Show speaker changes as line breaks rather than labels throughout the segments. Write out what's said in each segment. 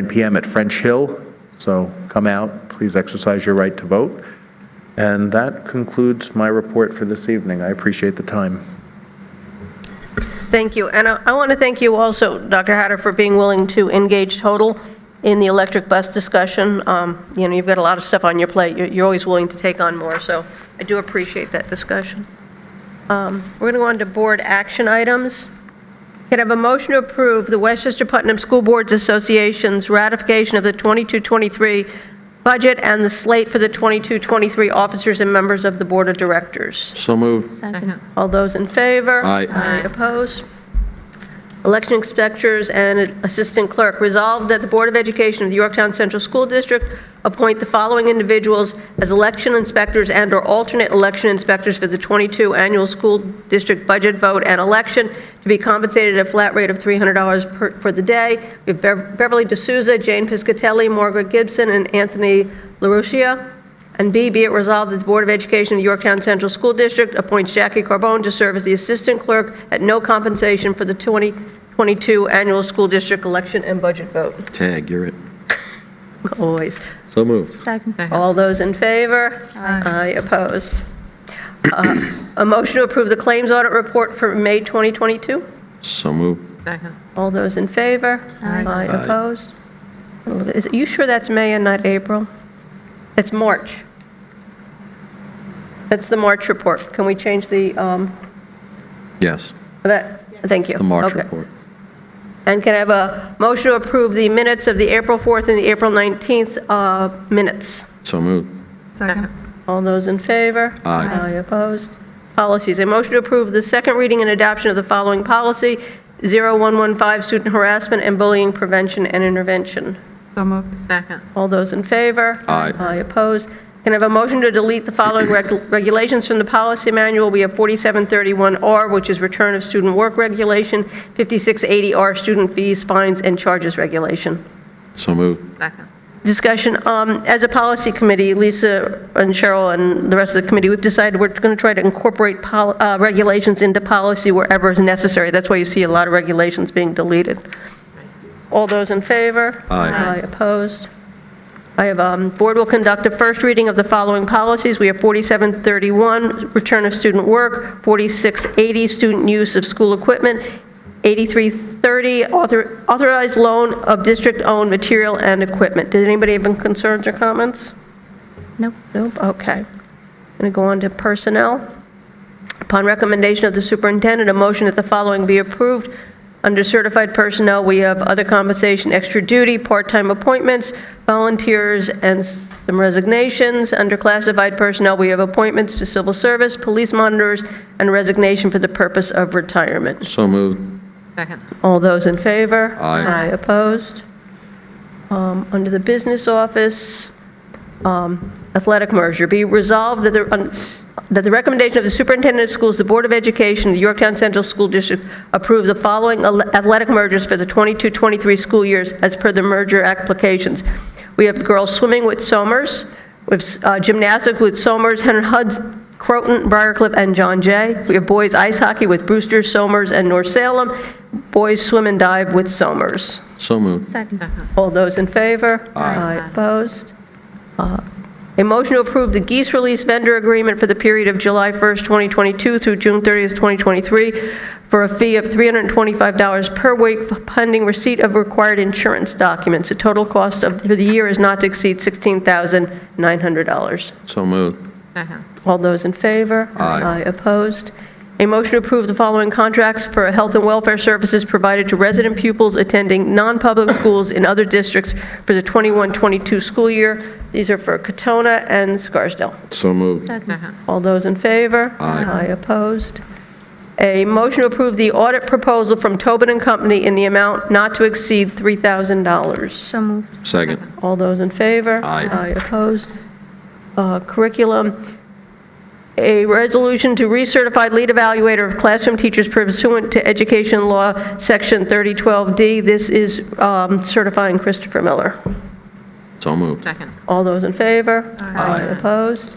9 PM at French Hill, so come out, please exercise your right to vote. And that concludes my report for this evening. I appreciate the time.
Thank you. And I I want to thank you also, Dr. Hatter, for being willing to engage Total in the electric bus discussion. Um, You know, you've got a lot of stuff on your plate. You're you're always willing to take on more, so I do appreciate that discussion. Um, We're going to go on to board action items. Can I have a motion to approve the Westchester Putnam School Boards Association's ratification of the 22-23 budget and the slate for the 22-23 officers and members of the Board of Directors?
So moved.
Second.
All those in favor?
Aye.
Aye opposed? Election inspectors and assistant clerk, resolved that the Board of Education of the Yorktown Central School District appoint the following individuals as election inspectors and/or alternate election inspectors for the 22 annual school district budget vote and election to be compensated at a flat rate of $300 per- for the day. We have Bev- Beverly D'Souza, Jane Piscatelli, Margaret Gibson, and Anthony LaRucia. And B, be it resolved that the Board of Education of the Yorktown Central School District appoints Jackie Carbone to serve as the Assistant Clerk at no compensation for the 2022 Annual School District Election and Budget Vote.
Tag, you're it.
Always.
So moved.
Second.
All those in favor? Aye. opposed. Uh, A motion to approve the Claims Audit Report for May 2022?
So moved.
Second.
All those in favor?
Aye.
opposed. Is- You sure that's May and not April? It's March. That's the March report. Can we change the, um,
Yes,
that, thank you.
the March
Okay.
report.
And can I have a motion to approve the minutes of the April 4th and the April 19th uh, minutes?
So moved.
Second.
All those in favor?
Aye.
opposed? Policies, a motion to approve the second reading and adoption of the following policy, 0115, student harassment and bullying prevention and intervention.
So moved. Second.
All those in favor?
Aye.
opposed? Can I have a motion to delete the following reg- regulations from the policy manual? We have 4731R, which is return of student work regulation, 5680R, student fees, fines, and charges regulation.
So moved.
Second.
Discussion, um, as a policy committee, Lisa and Cheryl and the rest of the committee, we've decided we're going to try to incorporate pol- uh, regulations into policy wherever is necessary. That's why you see a lot of regulations being deleted. All those in favor?
Aye.
Opposed? I have, um, Board will conduct a first reading of the following policies. We have 4731, return of student work, 4680, student use of school equipment, 8330, author- authorized loan of district-owned material and equipment. Did anybody have any concerns or comments?
Nope.
Nope, okay. Going to go on to personnel. Upon recommendation of the superintendent, a motion that the following be approved. Under certified personnel, we have other compensation, extra duty, part-time appointments, volunteers, and some resignations. Under classified personnel, we have appointments to civil service, police monitors, and resignation for the purpose of retirement.
So moved.
Second.
All those in favor?
Aye.
opposed? Um, Under the business office, um, athletic merger, be resolved that the, un- that the recommendation of the superintendent of schools, the Board of Education, the Yorktown Central School District approve the following al- athletic mergers for the 22-23 school years as per the merger applications. We have girls swimming with Somers, with uh, gymnastics with Somers, Henry Huds, Croton, Briarcliff, and John Jay. We have boys ice hockey with Brewster, Somers, and North Salem, boys swim and dive with Somers.
So moved.
Second.
All those in favor?
Aye.
Opposed? Uh, A motion to approve the geese release vendor agreement for the period of July 1st, 2022 through June 30th, 2023, for a fee of $325 per week pending receipt of required insurance documents. The total cost of, for the year is not to exceed $16,900.
So moved.
Second.
All those in favor?
Aye.
Opposed? A motion to approve the following contracts for health and welfare services provided to resident pupils attending non-public schools in other districts for the 21-22 school year. These are for Katona and Scarsdale.
So moved.
Second.
All those in favor?
Aye.
Opposed? A motion to approve the audit proposal from Tobin and Company in the amount not to exceed $3,000.
So moved.
Second.
All those in favor?
Aye.
opposed? Uh, Curriculum, a resolution to recertify lead evaluator of classroom teachers pursuant to Education Law, Section 3012D. This is um, certifying Christopher Miller.
So moved.
Second.
All those in favor?
Aye.
Opposed?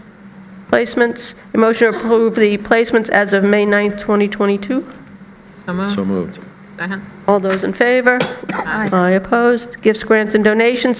Placements, a motion to approve the placements as of May 9th, 2022.
So moved.
So moved.
Second.
All those in favor?
Aye.
Aye opposed. Gifts, grants, and donations,